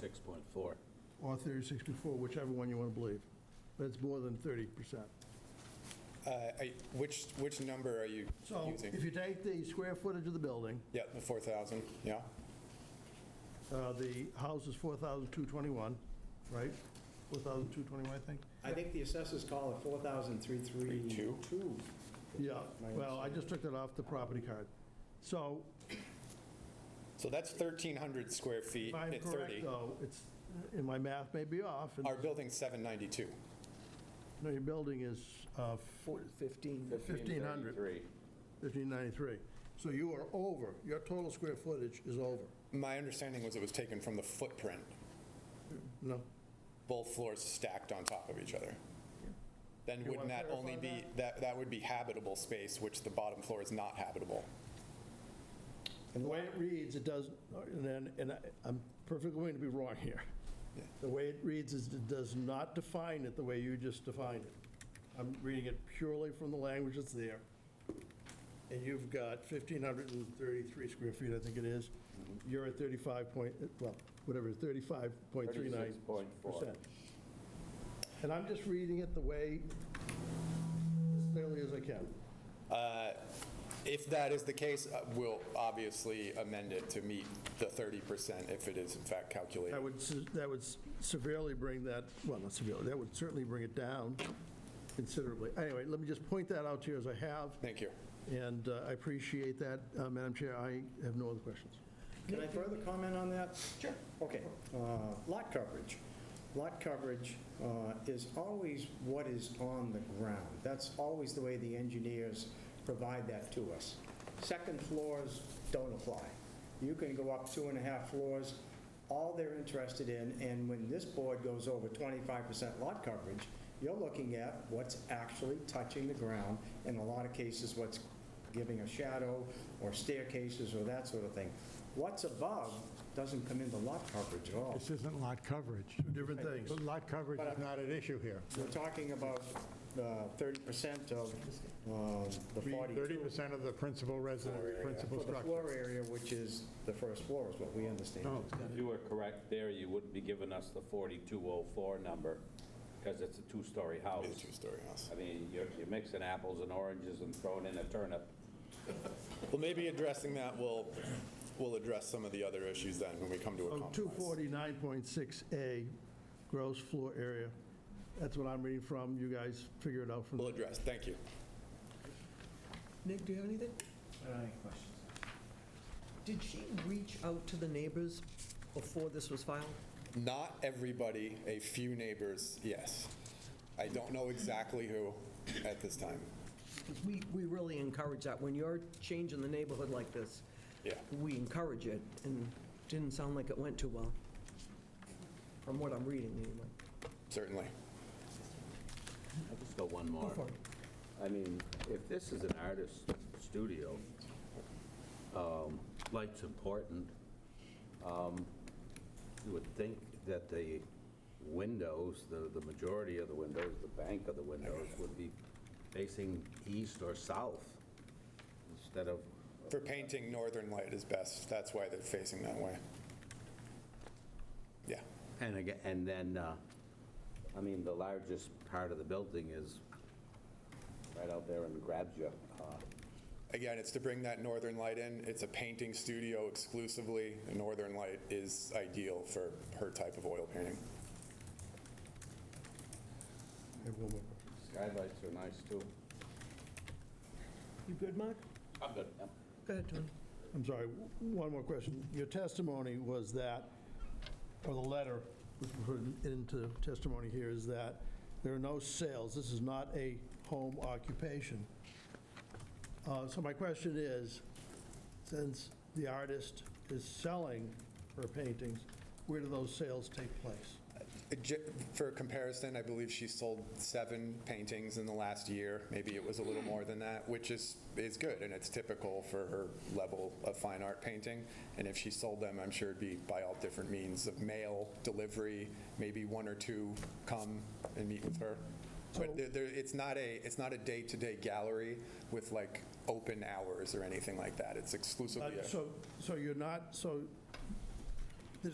36.4. or 36 before, whichever one you want to believe. But it's more than 30%. Uh, I- Which, which number are you So if using? you take the square footage of the building, Yeah, the 4,000, yeah? uh, the house is 4,221, right? 4,221, I think? I think the assessors call it 4,332. Yeah, well, I just took that off the property card. So So that's 1,300 square feet if I'm at correct, 30. though, it's, and my math may be off, and Our building's 792. no, your building is uh, 15. 1,500. 1,593. So you are over, your total square footage is over. My understanding was it was taken from the footprint, No? both floors stacked on top of each other. Then You wouldn't wanna that only clarify be, that, that would be habitable space, which the bottom floor is not habitable. And the way it reads, it does, and then, and I- I'm perfectly willing to be wrong here. The way it reads is it does not define it the way you just defined it. I'm reading it purely from the language that's there. And you've got 1,533 square feet, I think it is. You're at 35 point, well, whatever, 35.39%. 36.4. And I'm just reading it the way, as clearly as I can. If that is the case, uh, we'll obviously amend it to meet the 30% if it is in fact calculated. That would, se- that would severely bring that, well, not severely, that would certainly bring it down considerably. Anyway, let me just point that out to you as I have, Thank you. and uh, I appreciate that. Uh, Madam Chair, I have no other questions. Can I further comment on that? Sure. Okay. Uh, Lot coverage. Lot coverage uh, is always what is on the ground. That's always the way the engineers provide that to us. Second floors don't apply. You can go up two and a half floors, all they're interested in, and when this board goes over 25% lot coverage, you're looking at what's actually touching the ground, in a lot of cases, what's giving a shadow, or staircases, or that sort of thing. What's above doesn't come into lot coverage at all. This isn't lot coverage. Different things. But Lot coverage is not an issue here. We're talking about uh, 30% of uh, the 42, 30% of the principal residence, principal for the structure. floor area, which is the first floor, is what we understand. If you were correct there, you wouldn't be giving us the 4204 number, because it's a two-story house. It's a two-story house. I mean, you're you're mixing apples and oranges and throwing in a turnip. Well, maybe addressing that will, will address some of the other issues then when we come to a So compromise. 249.6A, gross floor area. That's what I'm reading from. You guys figure it out from We'll there. address, thank you. Nick, do you have anything? Did she reach out to the neighbors before this was filed? Not everybody, a few neighbors, yes. I don't know exactly who at this time. Because we, we really encourage that. When you're changing the neighborhood like this, Yeah. we encourage it, and didn't sound like it went too well, from what I'm reading, anyway. Certainly. I just got one more. for it. I mean, if this is an artist studio, um, light's important. Um, You would think that the windows, the, the majority of the windows, the bank of the windows would be facing east or south instead of, For painting, northern light is best. That's why they're facing that way. Yeah. and again, and then, uh, I mean, the largest part of the building is right out there and grabs you. Uh, Again, it's to bring that northern light in. It's a painting studio exclusively. The Northern light is ideal for her type of oil painting. I have one more. Skylights are nice too. You good, Mark? I'm good. Yep. Go ahead, Tony. I'm sorry, one more question. Your testimony was that, or the letter which we put into testimony here is that there are no sales, this is not a home occupation. Uh, So my question is, since the artist is selling her paintings, where do those sales take place? Uh, ju- For comparison, I believe she sold seven paintings in the last year. Maybe it was a little more than that, which is, is good, and it's typical for her level of fine art painting. And if she sold them, I'm sure it'd be by all different means of mail, delivery, maybe one or two come and meet with her. But there- there, it's not a, it's not a day-to-day gallery with like open hours or anything like that. It's exclusively Uh, a So, so you're not, so